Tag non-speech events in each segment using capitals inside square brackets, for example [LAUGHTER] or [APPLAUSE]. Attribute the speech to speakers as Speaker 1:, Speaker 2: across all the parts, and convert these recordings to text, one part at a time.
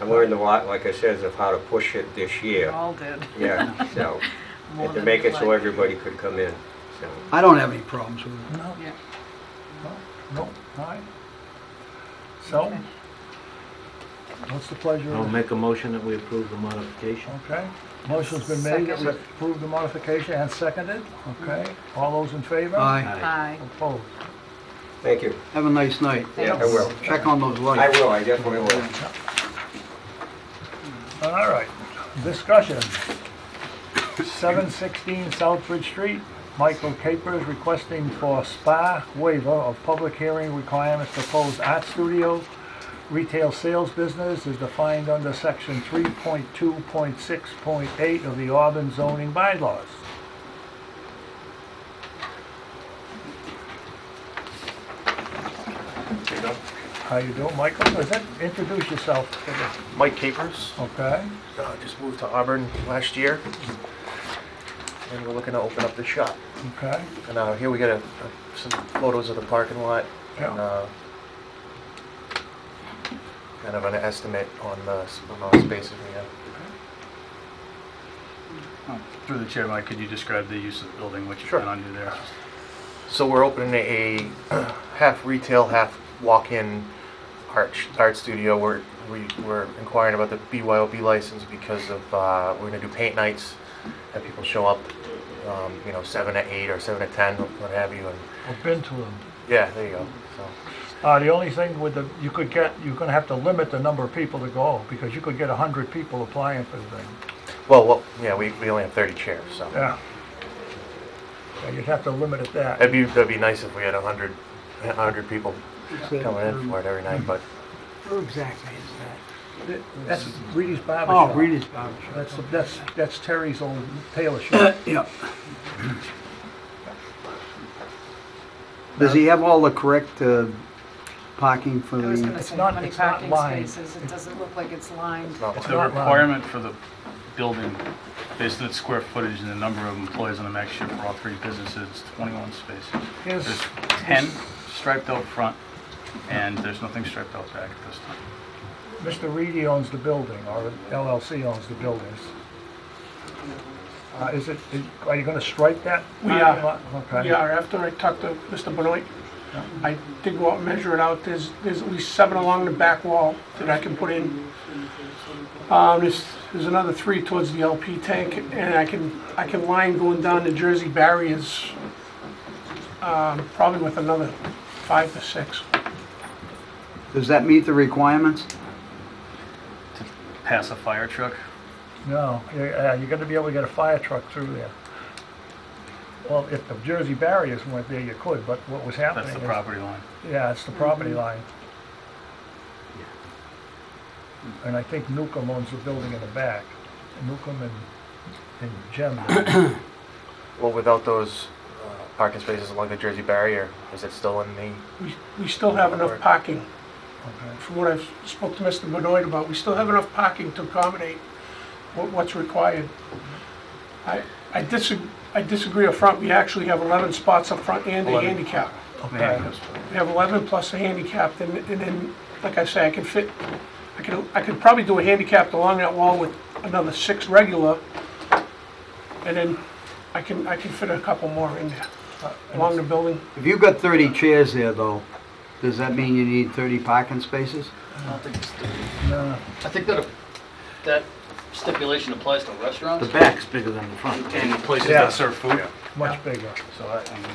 Speaker 1: I learned a lot, like I says, of how to push it this year.
Speaker 2: All did.
Speaker 1: Yeah, so,
Speaker 2: Oh. [LAUGHS] More
Speaker 1: and to
Speaker 2: than
Speaker 1: make
Speaker 2: we'd
Speaker 1: it so
Speaker 2: like.
Speaker 1: everybody could come in, so.
Speaker 3: I don't have any problems with it.
Speaker 4: No,
Speaker 2: Yeah.
Speaker 4: no, no, all right. So,
Speaker 2: Okay.
Speaker 4: what's the pleasure?
Speaker 5: I'll
Speaker 4: of
Speaker 5: make a motion that we approve the modification.
Speaker 4: Okay, motion's been made that we
Speaker 2: Second.
Speaker 4: approve the modification and seconded, okay? All those in favor?
Speaker 3: Aye.
Speaker 2: Aye.
Speaker 4: Opposed?
Speaker 1: Thank you.
Speaker 3: Have a nice night.
Speaker 1: Yeah, I
Speaker 2: Thanks.
Speaker 1: will.
Speaker 3: Check on those
Speaker 1: I
Speaker 3: lights.
Speaker 1: will, I definitely will.
Speaker 4: All right, discussion. Seven sixteen Southbridge Street, Michael Capers requesting for spa waiver of public hearing requirements proposed art studio. Retail sales business is defined under section three point two point six point eight of the Auburn zoning bylaws. How you doing, Michael? Is it, introduce yourself to the
Speaker 6: Mike Capers.
Speaker 4: Okay,
Speaker 6: Uh, just moved to Auburn last year, and we're looking to open up the shop.
Speaker 4: okay,
Speaker 6: And uh, here we got a, a, some photos of the parking lot
Speaker 4: yeah,
Speaker 6: and uh, kind of an estimate on the s- amount of spaces we have.
Speaker 7: Through the chair, Mike, could you describe the use of the building, what you
Speaker 6: Sure.
Speaker 7: plan on doing there?
Speaker 6: So we're opening a [CLEARS THROAT] half retail, half walk-in art sh- art studio. We're we, we're inquiring about the BYOB license because of uh, we're gonna do paint nights, have people show up, um, you know, seven to eight or seven to ten, what have you, and
Speaker 4: I've been to them.
Speaker 6: Yeah, there you go. So,
Speaker 4: Uh, the only thing with the, you could get, you're gonna have to limit the number of people to go, because you could get a hundred people applying for the thing,
Speaker 6: well, well, yeah, we, we only have 30 chairs, so
Speaker 4: yeah. Yeah, You'd have to limit it that.
Speaker 6: that'd be that'd be nice if we had 100, 100 people coming in for it every night. But
Speaker 3: Where exactly is
Speaker 4: That's Reedy's Barber
Speaker 3: Oh,
Speaker 4: Shop.
Speaker 3: Reedy's Barber
Speaker 4: That's, that's, that's Terry's old tailor shop.
Speaker 3: Yep. Does he have all the correct uh, parking for
Speaker 2: I was gonna
Speaker 3: the,
Speaker 2: say,
Speaker 4: not-
Speaker 2: how many
Speaker 4: it's not
Speaker 2: parking
Speaker 4: lined.
Speaker 2: spaces? It doesn't look like it's lined.
Speaker 6: it's not
Speaker 7: It's
Speaker 4: It's
Speaker 7: the
Speaker 4: not allowed.
Speaker 7: requirement for the building, based on its square footage and the number of employees on the max shift for all three businesses, it's 21 spaces.
Speaker 4: Here's,
Speaker 7: There's 10 striped out front, and there's nothing striped out back at this time.
Speaker 4: Mr. Reedy owns the building, or LLC owns the buildings. Uh, is it, are you gonna strike that? Uh,
Speaker 8: We are.
Speaker 4: Okay.
Speaker 8: Yeah, after I talked to Mr. Benoit, I did go out and measure it out, there's, there's at least seven along the back wall that I can put in. Um, there's, there's another three towards the LP tank, and I can, I can line going down the Jersey barriers, um, probably with another five to six.
Speaker 3: does that meet the requirements?
Speaker 7: To pass a fire truck,
Speaker 4: No, yeah, you're gonna be able to get a fire truck through there. Well, if the Jersey barriers weren't there, you could, but what was happening
Speaker 7: that's the
Speaker 4: is-
Speaker 7: property line.
Speaker 4: Yeah, it's the property line. And I think Newcomb owns the building in the back, Newcomb and, and Jem.
Speaker 7: [CLEARS THROAT]
Speaker 6: well, without those uh, parking spaces along the Jersey barrier, is it still in the?
Speaker 8: We, we still have enough parking, from what I've spoke to Mr. Benoit about, we still have enough parking to accommodate what, what's required. I, I disagree, I disagree up front, we actually have eleven spots up front and a
Speaker 7: Eleven.
Speaker 8: handicap.
Speaker 4: Okay.
Speaker 8: We have eleven plus a handicap, and, and then, like I say, I can fit, I could, I could probably do a handicap along that wall with another six regular, and then I can, I can fit a couple more in there, along the building.
Speaker 3: If you've got 30 chairs there, though, does that mean you need 30 parking spaces?
Speaker 9: I don't think it's,
Speaker 4: No,
Speaker 9: I think that, that stipulation applies to
Speaker 5: The
Speaker 9: restaurants
Speaker 5: back's bigger than the front.
Speaker 7: And places
Speaker 4: Yeah.
Speaker 7: that serve food,
Speaker 4: much bigger,
Speaker 7: so I- and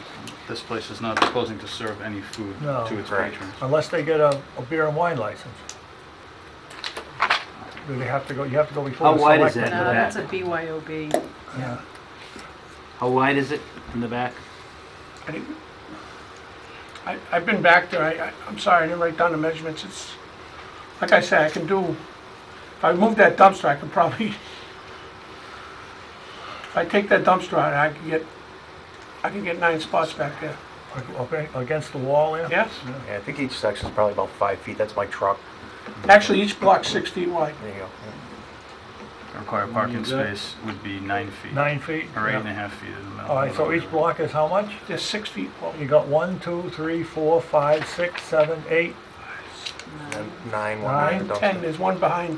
Speaker 7: this place is not proposing to serve any food
Speaker 4: No.
Speaker 7: to its
Speaker 6: Correct.
Speaker 7: patrons.
Speaker 4: unless they get a, a beer and wine license. Do they have to go, you have to go before
Speaker 5: How
Speaker 4: the
Speaker 5: wide is
Speaker 4: selectmen?
Speaker 5: that?
Speaker 2: No, that's a BYOB.
Speaker 4: Yeah.
Speaker 5: How wide is it in the back?
Speaker 8: I didn't- I, I've been back there, I, I- I'm sorry, I didn't write down the measurements, it's, like I said, I can do, if I move that dumpster, I could probably, if I take that dumpster out, I can get, I can get nine spots back there,
Speaker 4: Okay, against the wall there?
Speaker 8: yes?
Speaker 6: Yeah, I think each section is probably about five feet. That's my truck.
Speaker 8: Actually, each block's six feet wide.
Speaker 6: There you go.
Speaker 7: The Required parking
Speaker 5: Is that-
Speaker 7: space would be nine feet,
Speaker 4: Nine feet?
Speaker 7: or eight and
Speaker 4: Yeah.
Speaker 7: a half feet in the middle.
Speaker 4: All right, so each block is how much?
Speaker 8: There's six feet wide.
Speaker 4: You got one, two, three, four, five, six, seven, eight,
Speaker 6: And then nine, one
Speaker 4: Nine,
Speaker 6: after dumpster.
Speaker 8: Ten, there's one behind